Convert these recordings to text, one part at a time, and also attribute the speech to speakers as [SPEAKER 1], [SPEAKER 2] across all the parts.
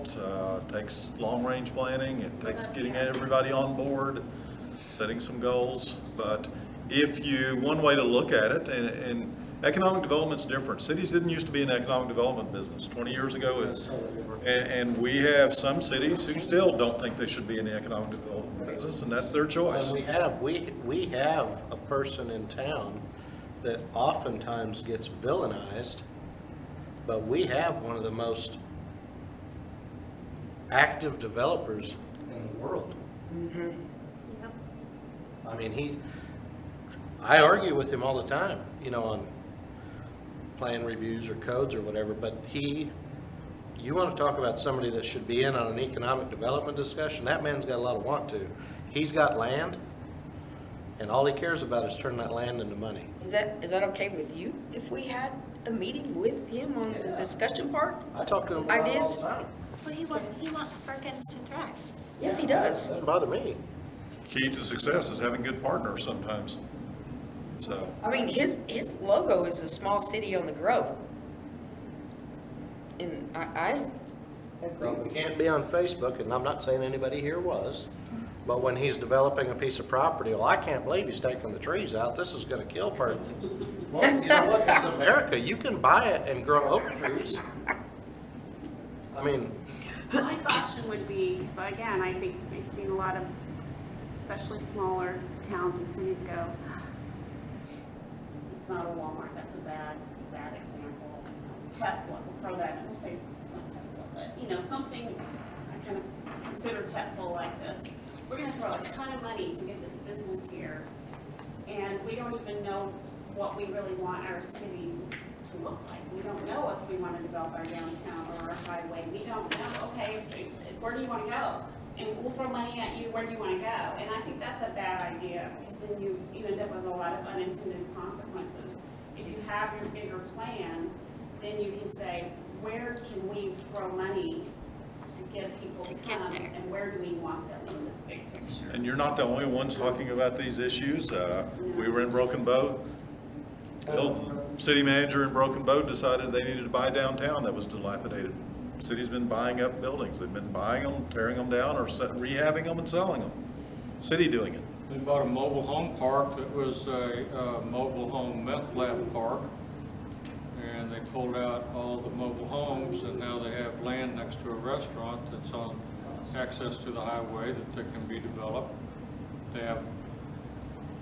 [SPEAKER 1] It uh, takes long-range planning, it takes getting everybody on board, setting some goals. But if you, one way to look at it, and, and economic development's different. Cities didn't used to be an economic development business. Twenty years ago, it's, and, and we have some cities who still don't think they should be in the economic development business, and that's their choice.
[SPEAKER 2] And we have, we, we have a person in town that oftentimes gets villainized, but we have one of the most active developers in the world.
[SPEAKER 3] Yep.
[SPEAKER 2] I mean, he, I argue with him all the time, you know, on plan reviews or codes or whatever, but he, you want to talk about somebody that should be in on an economic development discussion, that man's got a lot of want to. He's got land, and all he cares about is turning that land into money.
[SPEAKER 3] Is that, is that okay with you? If we had a meeting with him on this discussion part?
[SPEAKER 2] I talk to him about it all
[SPEAKER 3] Ideas?
[SPEAKER 2] the time.
[SPEAKER 4] Well, he wants, he wants Perkins to thrive.
[SPEAKER 3] Yes, he does.
[SPEAKER 2] Doesn't bother me.
[SPEAKER 1] Key to success is having good partners sometimes. So,
[SPEAKER 3] I mean, his, his logo is a small city on the Grove. And I, I agree
[SPEAKER 2] We
[SPEAKER 3] with
[SPEAKER 2] can't be on Facebook, and I'm not saying anybody here was, but when he's developing a piece of property, well, I can't believe he's taking the trees out, this is gonna kill Perkins. Well, you know what, it's America, you can buy it and grow oak trees. I mean,
[SPEAKER 5] My caution would be, so again, I think I've seen a lot of, especially smaller towns and cities go, it's not a Walmart, that's a bad, bad example. Tesla, we'll throw that in, we'll say, it's not Tesla, but, you know, something, I kind of consider Tesla like this. We're gonna throw a ton of money to get this business here, and we don't even know what we really want our city to look like. We don't know if we want to develop our downtown or our highway. We don't know, okay, where do you want to go? And we'll throw money at you, where do you want to go? And I think that's a bad idea, because then you, you end up with a lot of unintended consequences. If you have your bigger plan, then you can say, where can we throw money to get people to
[SPEAKER 4] To get
[SPEAKER 5] come?
[SPEAKER 4] there.
[SPEAKER 5] And where do we want them in this big picture?
[SPEAKER 1] and you're not the only ones talking about these issues. Uh, We were in Broken Bow. Bill, City manager in Broken Bow decided they needed to buy downtown that was dilapidated. City's been buying up buildings. They've been buying them, tearing them down, or se- rehabbing them and selling them. City doing it.
[SPEAKER 6] We bought a mobile home park that was a uh, mobile home meth lab park. And they pulled out all the mobile homes and now they have land next to a restaurant that's on access to the highway that they can be developed. They have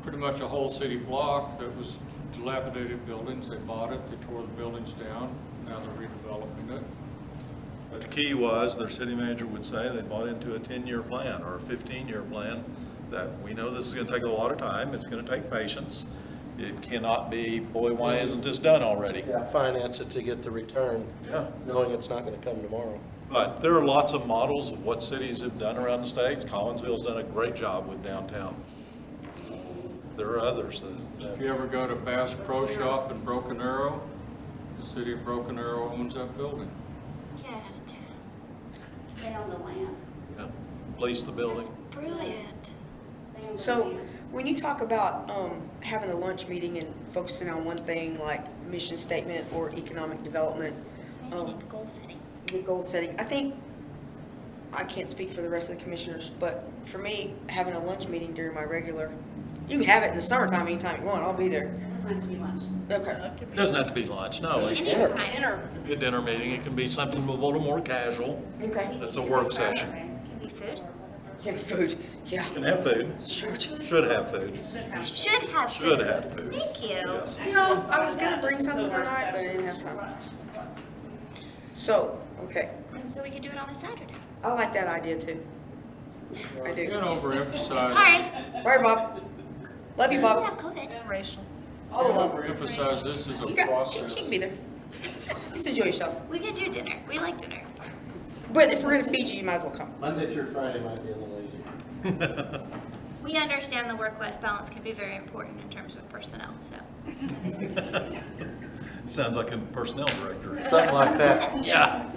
[SPEAKER 6] pretty much a whole city block that was dilapidated buildings. They bought it, they tore the buildings down, now they're redeveloping it.
[SPEAKER 1] But the key was, their city manager would say, they bought into a ten-year plan or a fifteen-year plan, that we know this is gonna take a lot of time, it's gonna take patience. It cannot be, boy, why isn't this done already?
[SPEAKER 2] finance it to get the return,
[SPEAKER 1] Yeah.
[SPEAKER 2] knowing it's not gonna come tomorrow.
[SPEAKER 1] But there are lots of models of what cities have done around the state. Collinsville's done a great job with downtown. There are others that,
[SPEAKER 6] If you ever go to Bass Pro Shop in Broken Arrow, the city of Broken Arrow owns that building.
[SPEAKER 4] Get out of town.
[SPEAKER 5] They own the land.
[SPEAKER 1] you know, lease the building.
[SPEAKER 4] That's brilliant.
[SPEAKER 5] They own the
[SPEAKER 3] So,
[SPEAKER 5] land.
[SPEAKER 3] when you talk about, um, having a lunch meeting and focusing on one thing like mission statement or economic development,
[SPEAKER 4] Maybe
[SPEAKER 3] um,
[SPEAKER 4] need goal setting.
[SPEAKER 3] the goal setting, I think, I can't speak for the rest of the commissioners, but for me, having a lunch meeting during my regular, you can have it in the summertime anytime you want, I'll be there.
[SPEAKER 5] It doesn't have to be lunch.
[SPEAKER 3] Okay.
[SPEAKER 1] It doesn't have to be lunch, no. It
[SPEAKER 4] Anytime.
[SPEAKER 1] can be a dinner meeting, it can be something a little more casual.
[SPEAKER 3] Okay.
[SPEAKER 1] That's a work session.
[SPEAKER 4] Can be food.
[SPEAKER 3] Yeah, food, yeah.
[SPEAKER 1] Can have food,
[SPEAKER 3] Sure.
[SPEAKER 1] should have food.
[SPEAKER 4] Should have food.
[SPEAKER 1] Should have food.
[SPEAKER 4] Thank you.
[SPEAKER 1] Yes.
[SPEAKER 3] You know, I was gonna bring something tonight, but I didn't have time. So, okay,
[SPEAKER 4] So we could do it on a Saturday.
[SPEAKER 3] I like that idea too. I
[SPEAKER 6] You
[SPEAKER 3] do.
[SPEAKER 6] don't overemphasize.
[SPEAKER 4] Alright.
[SPEAKER 3] All right, Bob. Love you,
[SPEAKER 4] We don't
[SPEAKER 3] Bob.
[SPEAKER 4] have COVID.
[SPEAKER 3] All of them.
[SPEAKER 6] Overemphasize this is a
[SPEAKER 3] You got, she,
[SPEAKER 6] process.
[SPEAKER 3] she can be there. Just enjoy yourself.
[SPEAKER 4] We could do dinner. We like dinner.
[SPEAKER 3] But if we're gonna feed you, you might as well come.
[SPEAKER 2] Monday through Friday might be a little easier.
[SPEAKER 4] We understand the work-life balance can be very important in terms of personnel, so.
[SPEAKER 1] Sounds like a personnel director.
[SPEAKER 2] Something like that.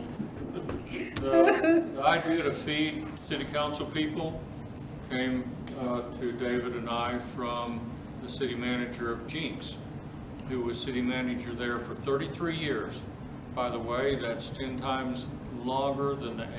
[SPEAKER 6] The the idea to feed city council people came uh, to David and I from the city manager of Jinx, who was city manager there for 33 years. By the way, that's 10 times longer than the